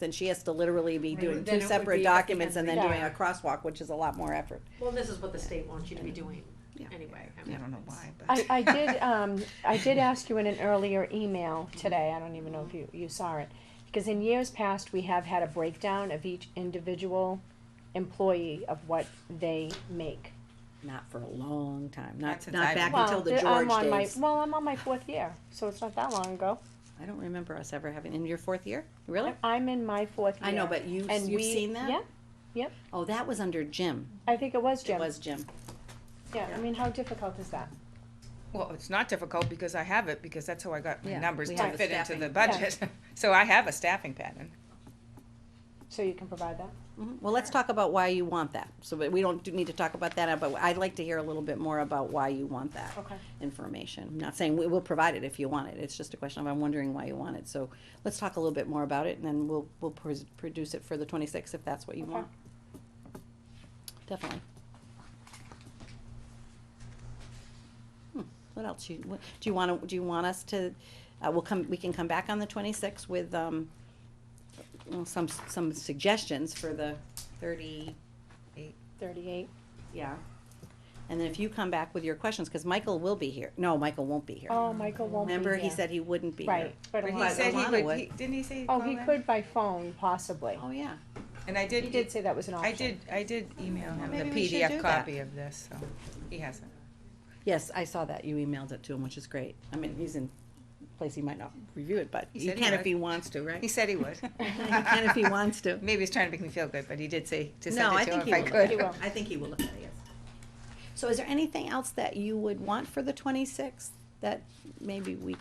Then she has to literally be Right, doing then two it would separate be at the documents and end then of the doing a year. crosswalk, which is a lot more effort. Well, this is what the state wants you to be doing Yeah. anyway. I Yeah. mean, I don't know it's- why, but. I, I did, um, I did ask you in an earlier email today, I don't even know if you, you saw it, because in years past, we have had a breakdown of each individual employee of what they make. Not for a long time, Not not, since not I've back been- until the um, Well, I'm George on my- days. Well, I'm on my fourth year, so it's not that long ago. I don't remember us ever having, in your fourth year, really? I'm in my fourth year. Oh. I know, but you, and you've we- seen that? Yeah, Oh, that was under Jim. I think it was It Jim. was Jim. Yeah, I mean, how difficult is that? Well, it's not difficult because I have it, because that's how I got my Yeah, numbers we to have a fit into the staffing. budget. So I have a staffing pattern. So you can provide that? Mhm. Well, let's talk about why you want that. So, but we don't do- need to talk about that, but I'd like to hear a little bit more about why you want that Okay. information. I'm not saying we will provide it if you want it. It's just a question of I'm wondering why you want it. So let's talk a little bit more about it and then we'll, we'll pres- produce it for the twenty-sixth if that's what you Okay. want. Definitely. Hmm, What else you, what, do you wanna, do you want us to, uh, we'll come, we can come back on the twenty-sixth with, um, well, some, some suggestions for the thirty, Thirty-eight. yeah. And then if you come back with your questions, cause Michael will be here. No, Michael won't be here. Oh, Michael won't be Remember, he here. said he wouldn't be here. Right, but But a he lot- said he Alana would, would. he- didn't he say? Oh, call he in? could by phone, possibly. Oh, yeah. And I He did did, e- say that was an option. I did, I did email him Maybe the we should do PDF that. copy of this, so he hasn't. Yes, I saw that. You emailed it to him, which is great. I mean, he's in place he might not review it, but He he said he can if would. he wants to, He right? said he would. He can if he wants to. Maybe he's trying to make me feel good, but he did say to No, send I it to think he him if I will. look at He could. will. it. I think he will look at it, yes. So is there anything else that you would want for the twenty-sixth that maybe we,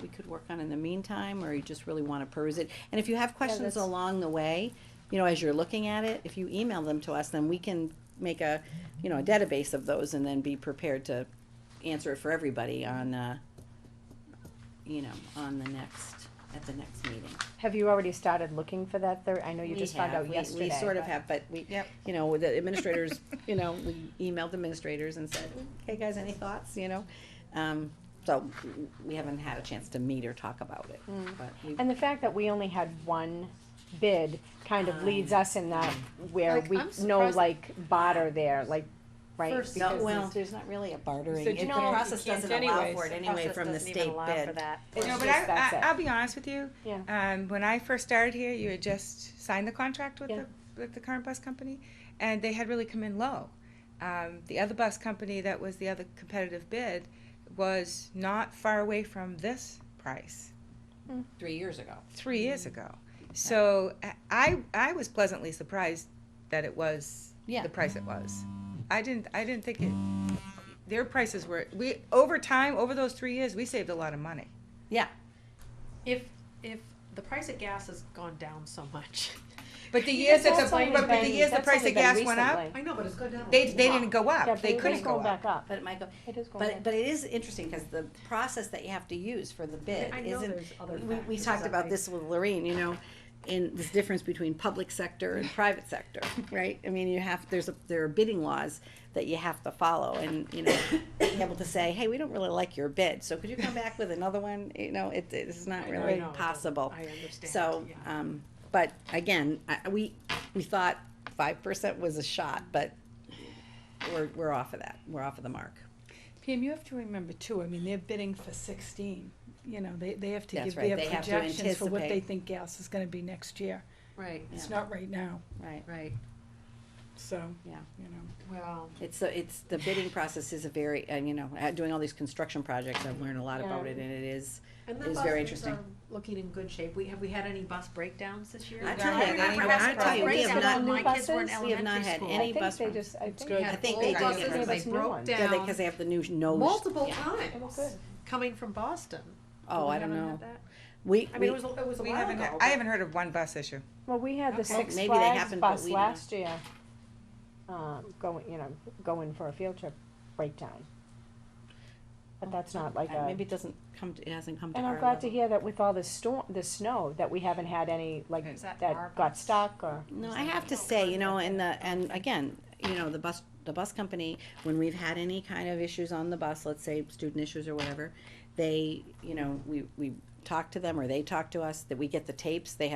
we could work on in the meantime, or you just really wanna peruse it? And if you have questions that's- along the way, you know, as you're looking at it, if you email them to us, then we can make a, you know, a database of those and then be prepared to answer it for everybody on, uh, you know, on the next, at the next meeting. Have you already started looking for that third, I know you We just found have. out We- yesterday. We sort of but- have, but we, Yep. you know, the administrators, you know, we emailed the administrators and said, hey, guys, any thoughts, you know? Um, so we haven't had a chance to meet or talk about it, but we, And the fact that we only had one bid kind of Um, leads us in that where Like, we I'm know surprised- like barter there, like, right? First, no, because well, this- there's not really a bartering. So If The no, you process can't doesn't allow anyways. for it anyway Process from the doesn't even state allow for bid. that. It's No, but just I, that's I, it. I'll be honest with you. Yeah. Um, when I first started here, you had just signed the contract with Yeah. the with the current bus company, and they had really come in low. Um, the other bus company that was the other competitive bid was not far away from this price Three years ago. three Mm. years ago. So I- I I was pleasantly surprised that it was Yeah. the price it was. I didn't I didn't think it. Their prices were we over time over those three years we saved a lot of money. Yeah, If, if the price of gas has gone down so much. But the Yeah, years that that's the, only but the been- years the that's price only of been gas went up, recently. I know, but it's gone down. they, they didn't go Yeah, up, but they it is couldn't go going up. back up. but it might go, It is going but, back. but it is interesting, cause the process that you have to use for the bid I know isn't there's other we, we factors talked that about make- this with Lorraine, you know, in this difference between public sector and private sector, right? I mean, you have, there's, a there are bidding laws that you have to follow and, you know, being able to say, hey, we don't really like your bid, so could you come back with another one? You know, it, it's not I really know, it doesn't- possible. I understand, So, yeah. um, but again, I, we, we thought five percent was a shot, but we're, we're off of that. We're off of the mark. Pam, you have to remember too, I mean, they're bidding for sixteen, you know, they, they have to That's give right, their they have to projections for what they anticipate. think gas is gonna be next year. Right, It's not right now, Right. right, so, Yeah. you know. well, It's, the- it's, the bidding process is a very, and you know, uh, doing all these construction projects, I've learned a lot Yeah. about it, and it is, and the It's very buses interesting. are looking in good shape. We, have we had any bus breakdowns this year? I tell you, remember they ain't having gonna- I bus tell you, we have breakdowns not- when My kids were in we have not elementary had school. any I bus think run. they just, I think. good. We had I think old they did buses get rid of that us. They New broke ones. yeah, down because they have the new no, multiple They were times, good. coming from Boston. oh, We I don't haven't know. had that. We, I mean, we, it was, a- it was a We while haven't, ago. I haven't heard of one bus issue. Well, we had Okay. the Six Maybe they Flags happen, but bus we don't. last year, um, going, you know, going for a field trip breakdown. But that's not like uh, a, maybe it doesn't come, to- it hasn't come to and our I'm glad to level. hear that with all the storm, the snow, that we haven't had any, like, Is that our that got bus? stuck or. No, I have to say, you know, and the, and again, you know, the bus, the bus company, when we've had any kind of issues on the bus, let's say student issues or whatever, they, you know, we, we talk to them or they talk to us, that we get the tapes, they have